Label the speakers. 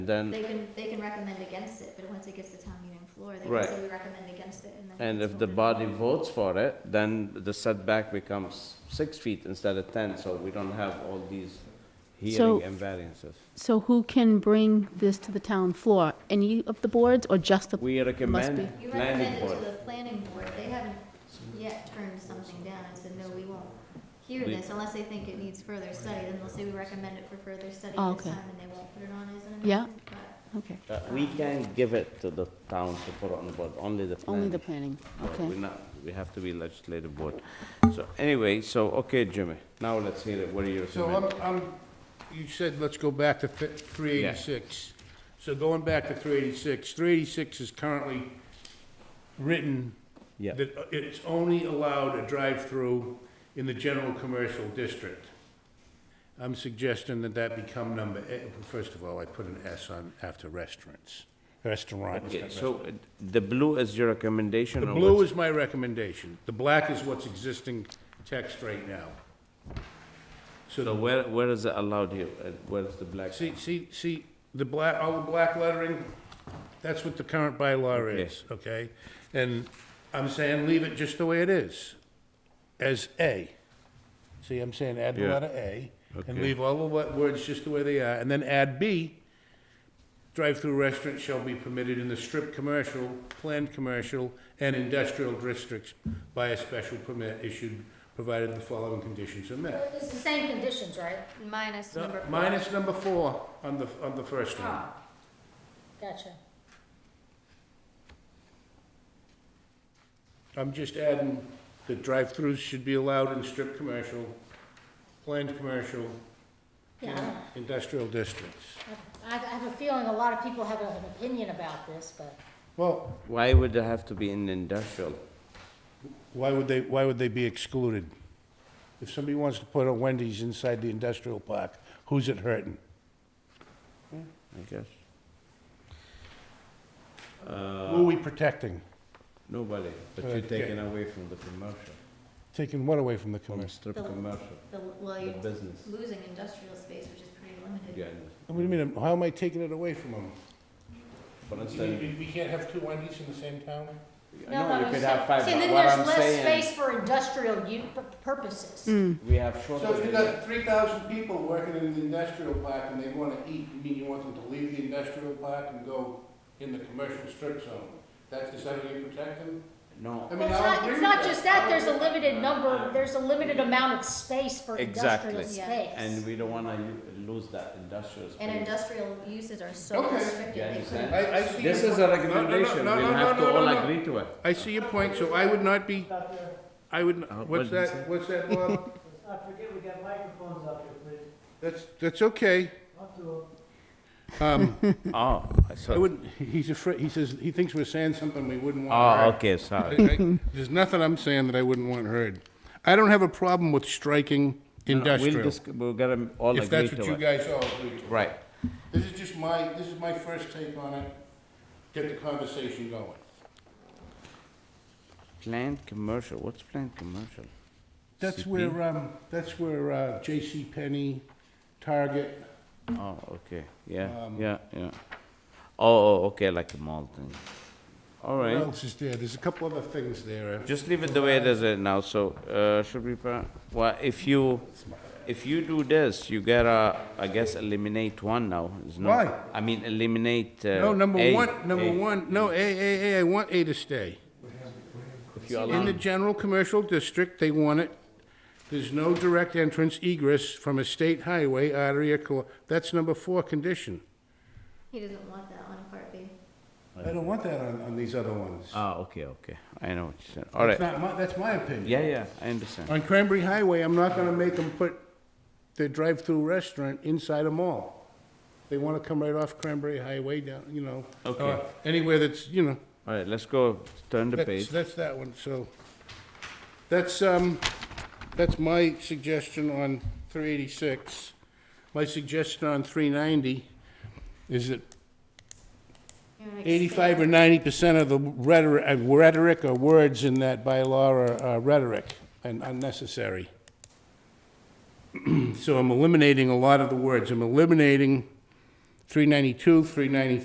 Speaker 1: Then,
Speaker 2: They can, they can recommend against it, but once it gets to town meeting floor, they can
Speaker 1: Right.
Speaker 2: say we recommend against it and then.
Speaker 1: and
Speaker 2: it's
Speaker 1: if the
Speaker 2: voted
Speaker 1: body
Speaker 2: on.
Speaker 1: votes for it, then the setback becomes six feet instead of ten, so we don't have all these
Speaker 3: So-
Speaker 1: hearing and variances.
Speaker 3: So who can bring this to the town floor? Any of the boards or just the?
Speaker 1: We recommend
Speaker 3: be.
Speaker 2: You
Speaker 1: planning
Speaker 2: recommend it
Speaker 1: board.
Speaker 2: to the planning board, they haven't yet turned something down and said, no, we won't hear
Speaker 1: We-
Speaker 2: this unless they think it needs further study, then they'll say we recommend it for further study
Speaker 3: Oh,
Speaker 2: this
Speaker 3: okay.
Speaker 2: time and they won't put it on as an amendment.
Speaker 3: Yeah.
Speaker 2: but-
Speaker 3: Okay,
Speaker 1: Uh, We can give it to the town to put on the board, only the
Speaker 3: only
Speaker 1: planning.
Speaker 3: the planning,
Speaker 1: board.
Speaker 3: okay.
Speaker 1: We're not, we have to be legislative board. So anyway, so, okay, Jimmy, now let's hear it, what are you
Speaker 4: So um,
Speaker 1: recommending?
Speaker 4: I'm, I'm, you said let's go back to three eighty-six. So going back to three eighty-six, three eighty-six is currently written
Speaker 1: Yeah.
Speaker 4: that uh, it's only allowed a drive-through in the general commercial district. I'm suggesting that that become number, eh, first of all, I put an S on after restaurants, restaurant.
Speaker 1: Okay, so uh, the blue is your recommendation
Speaker 4: The
Speaker 1: or
Speaker 4: blue
Speaker 1: what's-
Speaker 4: is my recommendation, the black is what's existing text right now. So
Speaker 1: So where, where is it allowed here? Uh, Where's the black?
Speaker 4: See, see, see, the black, all the black lettering, that's what the current bylaw is, okay? And I'm saying leave it just the way it is, as A. See, I'm saying add the
Speaker 1: Yeah.
Speaker 4: letter A, and
Speaker 1: Okay.
Speaker 4: leave all the wo- words just the way they are, and then add B. Drive-through restaurants shall be permitted in the strip commercial, planned commercial, and industrial districts by a special permit issued, provided the following conditions are met.
Speaker 5: It's the same conditions, right?
Speaker 2: Minus
Speaker 4: No,
Speaker 2: number four.
Speaker 4: Minus number four on the, on the first one.
Speaker 5: Ah, Gotcha.
Speaker 4: I'm just adding that drive-throughs should be allowed in strip commercial, planned commercial,
Speaker 5: Yeah, I don't-
Speaker 4: industrial districts.
Speaker 5: I, I have a feeling a lot of people have an opinion about this, but
Speaker 4: Well,
Speaker 1: Why would it have to be in industrial?
Speaker 4: why would they, why would they be excluded? If somebody wants to put a Wendy's inside the industrial park, who's it hurting?
Speaker 1: I guess.
Speaker 4: Who are we protecting?
Speaker 1: Nobody, but
Speaker 4: Okay.
Speaker 1: you're taking away from the commercial,
Speaker 4: Taking what away from the
Speaker 1: from the
Speaker 4: commercial?
Speaker 1: strip
Speaker 2: The-
Speaker 1: commercial,
Speaker 2: The, well,
Speaker 1: the
Speaker 2: you're
Speaker 1: business.
Speaker 2: losing industrial space, which is pretty limited.
Speaker 1: Yeah,
Speaker 4: What do you mean, how am I taking it away from them?
Speaker 1: For instance,
Speaker 4: we can't have two Wendy's in the same town?
Speaker 5: no, no,
Speaker 1: no, you
Speaker 5: you
Speaker 1: could
Speaker 5: said-
Speaker 1: have five,
Speaker 5: see,
Speaker 1: but
Speaker 5: then
Speaker 1: what I'm
Speaker 5: there's less
Speaker 1: saying,
Speaker 5: space for industrial u- pu- purposes.
Speaker 3: Mm,
Speaker 1: we have shorter.
Speaker 4: So if you got three thousand people working in an industrial park and they wanna eat, you mean you want them to leave the industrial park and go in the commercial strip zone? That's, is that how you protect them?
Speaker 1: No,
Speaker 4: I mean,
Speaker 5: Well, it's
Speaker 4: I'll
Speaker 5: not,
Speaker 4: agree
Speaker 5: it's
Speaker 4: with
Speaker 5: not just that, there's a limited number, there's a limited amount of space for
Speaker 1: Exactly.
Speaker 5: industrial
Speaker 2: Yeah.
Speaker 5: space.
Speaker 1: and we don't wanna u- lose that industrial space.
Speaker 2: And industrial uses are so
Speaker 4: Okay.
Speaker 2: restricted,
Speaker 1: You
Speaker 2: they
Speaker 1: understand?
Speaker 2: couldn't.
Speaker 4: I, I see.
Speaker 1: This
Speaker 4: your
Speaker 1: is a
Speaker 4: point. No, no, no,
Speaker 1: recommendation,
Speaker 4: no,
Speaker 1: we'll
Speaker 4: no,
Speaker 1: have
Speaker 4: no,
Speaker 1: to
Speaker 4: no,
Speaker 1: all
Speaker 4: no.
Speaker 1: agree to it.
Speaker 4: I see your point, so I would not be, I would,
Speaker 1: Uh, what
Speaker 4: what's
Speaker 1: did you say?
Speaker 4: that, what's that, Bob?
Speaker 6: I forget we got microphones up here, please.
Speaker 4: That's, that's okay.
Speaker 6: Up to 'em.
Speaker 4: Um,
Speaker 1: Oh, I
Speaker 4: I
Speaker 1: saw,
Speaker 4: wouldn't, he's afraid, he says, he thinks we're saying something we wouldn't want to
Speaker 1: oh,
Speaker 4: hear.
Speaker 1: okay, sorry.
Speaker 4: I- I- There's nothing I'm saying that I wouldn't want heard. I don't have a problem with striking
Speaker 1: We'll
Speaker 4: industrial,
Speaker 1: just, we'll get them all
Speaker 4: if
Speaker 1: agree
Speaker 4: that's what you
Speaker 1: to it.
Speaker 4: guys all agree to.
Speaker 1: Right,
Speaker 4: This is just my, this is my first take on it. Get the conversation going.
Speaker 1: planned commercial, what's planned commercial?
Speaker 4: That's
Speaker 1: CP?
Speaker 4: where, um, that's where, uh, J.C. Penney, Target,
Speaker 1: Oh, okay, yeah,
Speaker 4: Um,
Speaker 1: yeah, yeah. Oh, oh, okay, like a mall thing. All
Speaker 4: what
Speaker 1: right,
Speaker 4: else is there? There's a couple other things there. uh,
Speaker 1: just leave it the way it is right now, so, uh, should we, pa- well, if you, if you do this, you gotta, I guess, eliminate one now, is not.
Speaker 4: Why?
Speaker 1: I mean, eliminate, uh.
Speaker 4: No, number
Speaker 1: A,
Speaker 4: one, number
Speaker 1: A.
Speaker 4: one, no, A, A, A, I want A to stay.
Speaker 1: If you
Speaker 4: In
Speaker 1: allow,
Speaker 4: the general commercial district, they want it, there's no direct entrance egress from a state highway, artery, or cor, that's number four condition.
Speaker 2: He doesn't want that on part B.
Speaker 4: I don't want that on, on these other ones.
Speaker 1: ah, okay, okay, I know what you said, all right,
Speaker 4: That's not my, that's my opinion.
Speaker 1: yeah, yeah, I understand.
Speaker 4: On Cranberry Highway, I'm not gonna make them put their drive-through restaurant inside a mall. They wanna come right off Cranberry Highway down, you know.
Speaker 1: Okay.
Speaker 4: uh, Anywhere that's, you know,
Speaker 1: All right, let's go, turn the
Speaker 4: that's,
Speaker 1: page.
Speaker 4: that's that one, so. That's, um, that's my suggestion on three eighty-six. My suggestion on three ninety is that
Speaker 2: You know, like
Speaker 4: eighty-five or ninety percent of the rhetoric, uh, rhetoric or words in that bylaw are uh, rhetoric and unnecessary. So I'm eliminating a lot of the words. I'm eliminating 392, 393.